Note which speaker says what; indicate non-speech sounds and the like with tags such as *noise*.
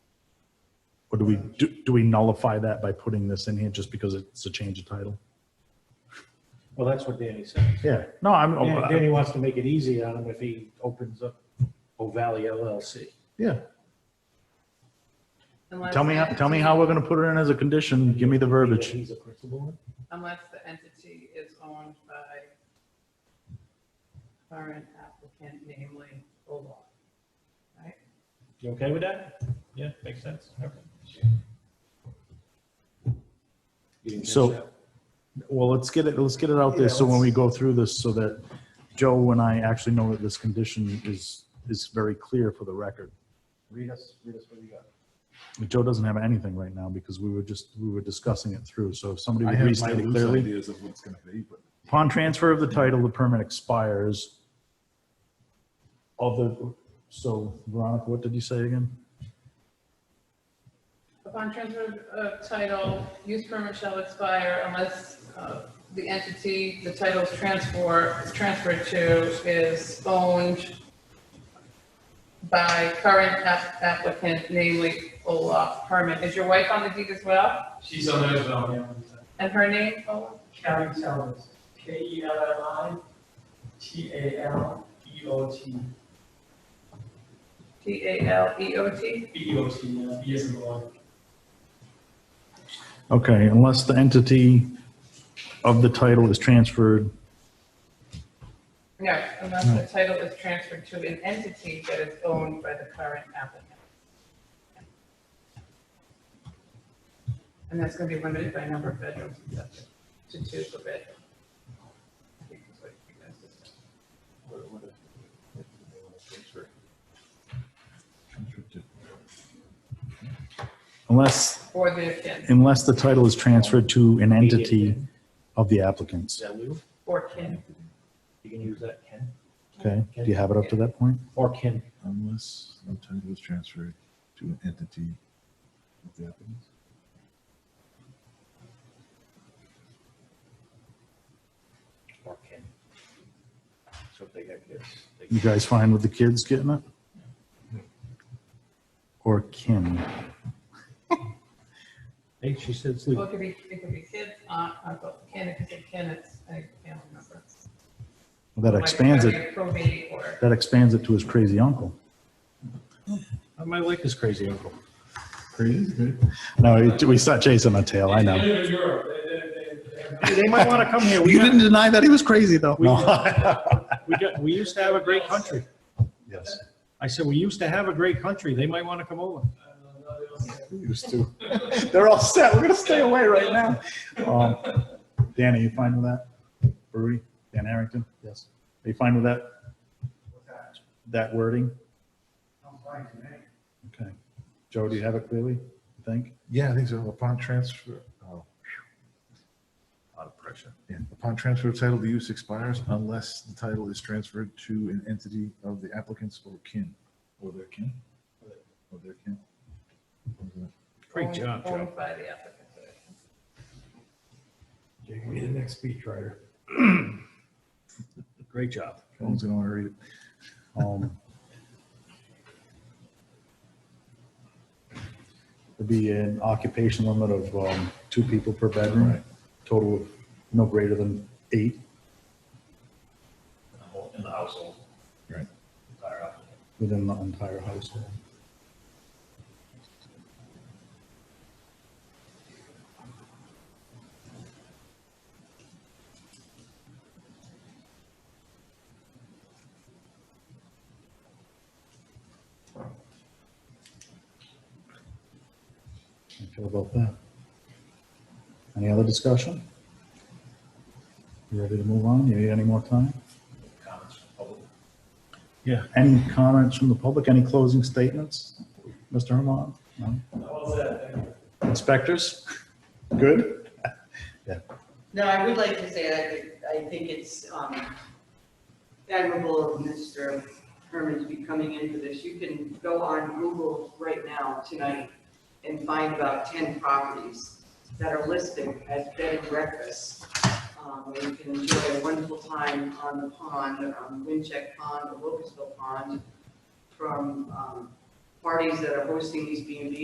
Speaker 1: Or do we, do do we nullify that by putting this in here just because it's a change of title?
Speaker 2: Well, that's what Danny says.
Speaker 1: Yeah, no, I'm,
Speaker 2: Dan- Danny wants to make it easy on him if he opens up O'Valley LLC.
Speaker 1: yeah.
Speaker 3: Unless
Speaker 1: Tell me,
Speaker 3: the
Speaker 1: how- tell me
Speaker 3: entity-
Speaker 1: how we're gonna put it in as a condition. Give me the verbiage.
Speaker 2: He's a principal.
Speaker 3: Unless the entity is owned by current applicant, namely Ola. Right?
Speaker 2: You okay with that? Yeah, makes sense. Okay. You didn't catch
Speaker 1: So-
Speaker 2: that?
Speaker 1: Well, let's get it, let's get it out there, so when we go through this, so that Joe and I actually know that this condition is, is very clear for the record.
Speaker 4: Read us, read us what you got.
Speaker 1: Joe doesn't have anything right now, because we were just, we were discussing it through, so if somebody
Speaker 4: I
Speaker 1: would
Speaker 4: have my
Speaker 1: restate it
Speaker 4: loose
Speaker 1: clearly.
Speaker 4: ideas of what it's gonna be, but
Speaker 1: Upon transfer of the title, the permit expires. Of the, so Veronica, what did you say again?
Speaker 3: Upon transfer of title, use permit shall expire unless uh, the entity the title is transfer, is transferred to is owned by current app- applicant, namely Olaf Herman. Is your wife on the deed as well?
Speaker 5: She's on there as well, yeah.
Speaker 3: And her name, Olaf?
Speaker 5: Carrie Talbot, K E L L I T A L B O T,
Speaker 3: T A L E O T?
Speaker 5: B O T, yeah, B as in boy.
Speaker 1: Okay, unless the entity of the title is transferred,
Speaker 3: No, unless the title is transferred to an entity that is owned by the current applicant. And that's gonna be limited by number of bedrooms and septic, to two per bedroom. I think that's what you guys just
Speaker 4: what- what if- if they wanna transfer? Transfer to-
Speaker 1: unless,
Speaker 3: said. Or their kin,
Speaker 1: unless the title is transferred to an entity of the
Speaker 2: Is
Speaker 1: applicants,
Speaker 2: that Lou?
Speaker 3: or kin,
Speaker 2: You can use that, Ken.
Speaker 1: okay? Do you have it up to that point?
Speaker 2: Or Ken.
Speaker 4: Unless no title is transferred to an entity of the applicant.
Speaker 2: Or Ken. So if they got kids. they
Speaker 1: You
Speaker 2: can-
Speaker 1: guys fine with the kids getting it? Or kin?
Speaker 2: Hey, she said
Speaker 3: well,
Speaker 2: Lou.
Speaker 3: it could be, it could be kids, aunt, uncle, kin, if it's a kin, it's a family member.
Speaker 1: That
Speaker 3: Like,
Speaker 1: expands it,
Speaker 3: probably Probate or,
Speaker 1: that expands it to his crazy uncle.
Speaker 2: I might like this crazy uncle.
Speaker 4: Crazy, dude.
Speaker 1: No, we start chasing a tail, I know.
Speaker 5: They're in Europe, they, they, they, they. have-
Speaker 2: They might want to come here. We
Speaker 1: You
Speaker 2: got-
Speaker 1: didn't deny that he was crazy, though.
Speaker 2: We- We got, we used to have a great country.
Speaker 1: *laughs* Yes.
Speaker 2: I said, we used to have a great country. They might want to come over.
Speaker 5: I don't know, they don't have-
Speaker 1: Used to. They're all set. We're gonna stay away right now. Um, Danny, you fine with that? Brewery, Dan Harrington? Yes. Are you fine with that? That wording? Okay. Joe, do you have it clearly, you think?
Speaker 4: Yeah, I think so. Upon transfer, oh. phew. Lot of pressure. Yeah, upon transfer of title, the use expires unless the title is transferred to an entity of the applicant's or kin, or their kin, or their kin.
Speaker 2: Great
Speaker 3: owned-
Speaker 2: job, Joe.
Speaker 3: owned by the applicant.
Speaker 2: Great job.
Speaker 4: Someone's gonna wanna read it.
Speaker 1: Um, It'd be an occupation limit of, um, two people per bedroom,
Speaker 4: Right.
Speaker 1: total of no greater than eight.
Speaker 6: in the household.
Speaker 4: Right.
Speaker 6: Entire household.
Speaker 1: within the entire household. How you feel about that? Any other discussion? You ready to move on? You need any more time?
Speaker 6: Comments from public?
Speaker 1: Any comments from the public? Any closing statements? Mr. Herman? No?
Speaker 5: How was that? Thank you.
Speaker 1: Inspectors? Good?
Speaker 7: No, I would like to say that I I think it's um, admirable of Mr. Herman to be coming in for this. You can go on Google right now tonight and find about 10 properties that are listed as bed and breakfasts. um, Where you can enjoy a wonderful time on the pond, on Wincheck Pond or Locustville Pond, from um, parties that um, are hosting these B and Bs